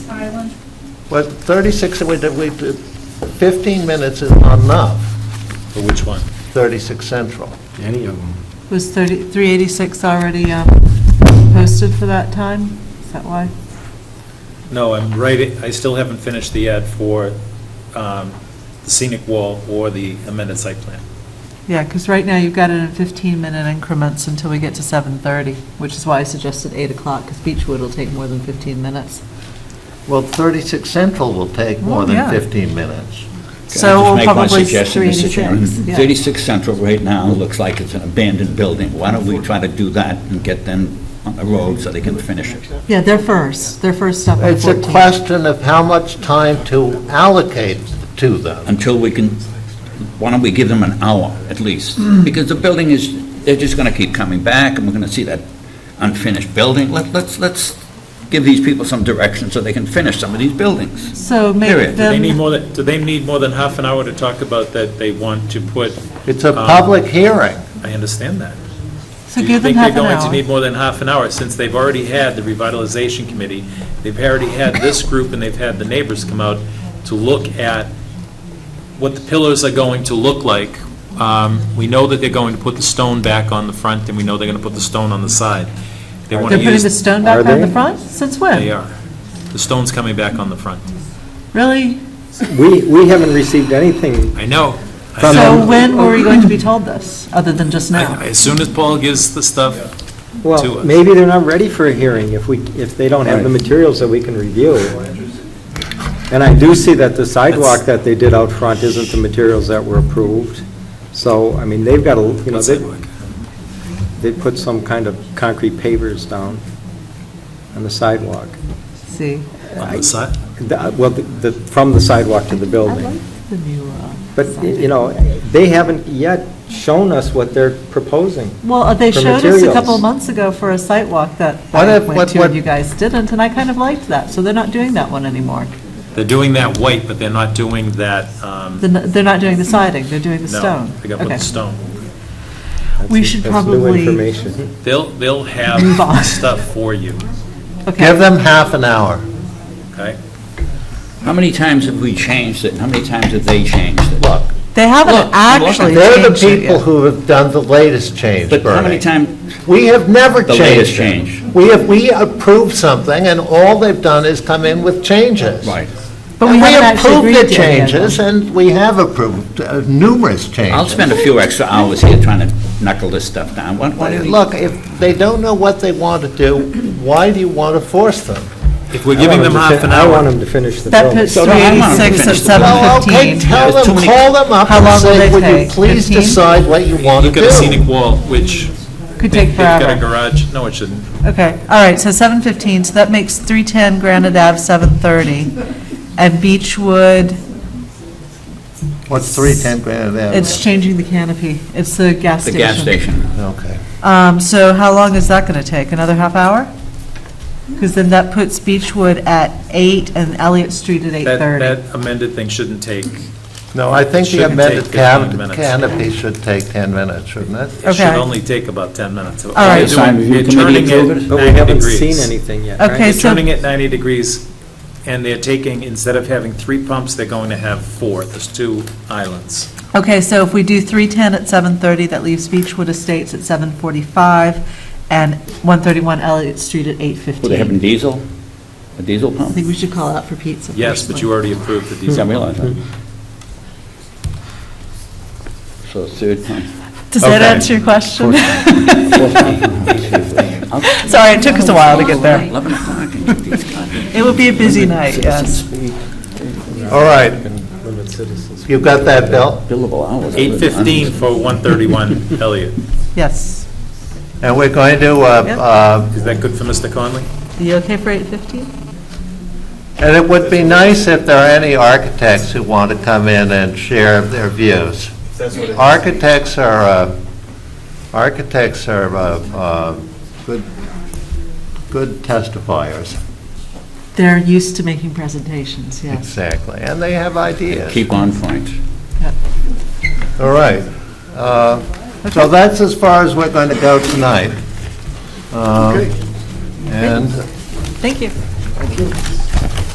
Highland? Well, 36, we did- we did- 15 minutes is not enough, For which one? 36 Central. Any of them. Was 30 386 already um, posted for that time? Is that why? No, I'm right, I still haven't finished the ad for um, the scenic wall or the amended site plan. Yeah, because right now you've got it in 15-minute increments until we get to 7:30, which is why I suggested 8 o'clock, because Beechwood will take more than 15 minutes. Well, 36 Central will take more Well, than yeah. 15 minutes. Can I just So we'll make one probably suggestion, Mr. Chairman? 386. yeah. 36 Central right now looks like it's an abandoned building. Why don't we try to do that and get them on the road so they can finish it? Yeah, they're first, they're first up at It's a 14. question of how much time to allocate to them. Until we can, why don't we give them an hour at least? Hmm. Because the building is, they're just going to keep coming back, and we're going to see that unfinished building. Let- Let's, let's give these people some direction so they can finish some of these buildings. So Period. make Do Do they need them, more than, do they need more than half an hour to talk about that they want to put, It's a Um, public hearing. I understand that. so give them Do you half think an they're going to need hour. more than half an hour, since they've already had the revitalization committee, they've already had this group, and they've had the neighbors come out to look at what the pillars are going to look like? Um, We know that they're going to put the stone back on the front, and we know they're going to put the stone on the side. They want They're to putting use, the stone back Are on the they? front? Since they when? are. The stone's coming back on the front. Really? We, we haven't received anything. I know. I From know. So them. when were we going to be told this, other than just now? I- As soon as Paul gives the stuff, To Well, us. maybe they're not ready for a hearing if we, if they don't have the materials that we can review. And I do see that the sidewalk that they did out front isn't the materials that were approved. So, I mean, they've got, a you know, what's they, that work? they put some kind of concrete pavers down on the sidewalk. See, on the side? The- Well, the- the, from the sidewalk to the I building. like the new, uh, But, y- you know, they haven't yet shown us what they're proposing. well, uh, they For showed us a couple materials. months ago for a site walk that What I if- what- went to what- and you guys didn't, and I kind of liked that, so they're not doing that one anymore. They're doing that white, but they're not doing that, um, They're not- they're not doing the siding, they're doing the no, stone. they got to put Okay. the stone. We should That's new probably- information. They'll, they'll Move on. have stuff for you, Give Okay, them half an hour. okay? How many times have we changed it? How many times have they changed it? Look, they Look, haven't look, actually they're the changed it people yet. who have done the latest change, But how Bernie. many times, We have never The changed. latest it. change. We have, we approved something, and all they've done is come in with changes. right, But we And haven't actually agreed approved the to any of them. changes, and we have approved uh, numerous changes. I'll spend a few extra hours here trying to knuckle this stuff down. Why- why don't we- Look, if they don't know what they want to do, why do you want to force them? If we're I giving want them to half fin- an I want hour, them to finish the That building. puts So, no, I'm not 386 at finished with that. Well, okay, 7:15. tell There's them, too many- call them up How long and will say, they would you take? please 15? decide what you want to look at the do? scenic wall, which Could they- take they've got a forever. garage, no, it shouldn't. Okay, all right, so 7:15, so that makes 310 Granite Ave 7:30, and Beechwood, What's 310 Granite Avenue? it's changing the canopy, it's the gas The station. gas station. Okay. Um, So how long is that going to take, another half hour? Because then that puts Beechwood at 8 and Elliott Street at That, 8:30. that amended thing shouldn't take, No, I think the Shouldn't amended take 15 can- minutes. canopy should take 10 minutes, shouldn't it? it should Okay. only take about 10 minutes. All right. Design review committee approve it? But we haven't seen anything yet, right? Okay, They're so- turning it 90 degrees, and they're taking, instead of having three pumps, they're going to have four, there's two islands. Okay, so if we do 310 at 7:30, that leaves Beechwood Estates at 7:45, and 131 Elliott Street at 8:15. Were they having diesel? A diesel I pump? think we should call out for pizza. Yes, but you already approved the I diesel. realize that. So third time. Does that Okay. answer your question? fourth time. Sorry, it took us a while to get there. 11 o'clock and get these goddamn It would be a busy night, yes. All right, you got that, Bill? billable hours. 8:15 for 131 Elliott. Yes. And we're going to, uh, Yep. uh, Is that good for Mr. Conley? Are you okay for 8:15? and it would be nice if there are any architects who want to come in and share their views. Architects are, uh, architects are uh, uh, good good testifiers, They're used to making presentations, yes. exactly, and they have ideas. Keep on point. All right. Uh, So that's as far as we're going to go tonight. Um, And Thank you.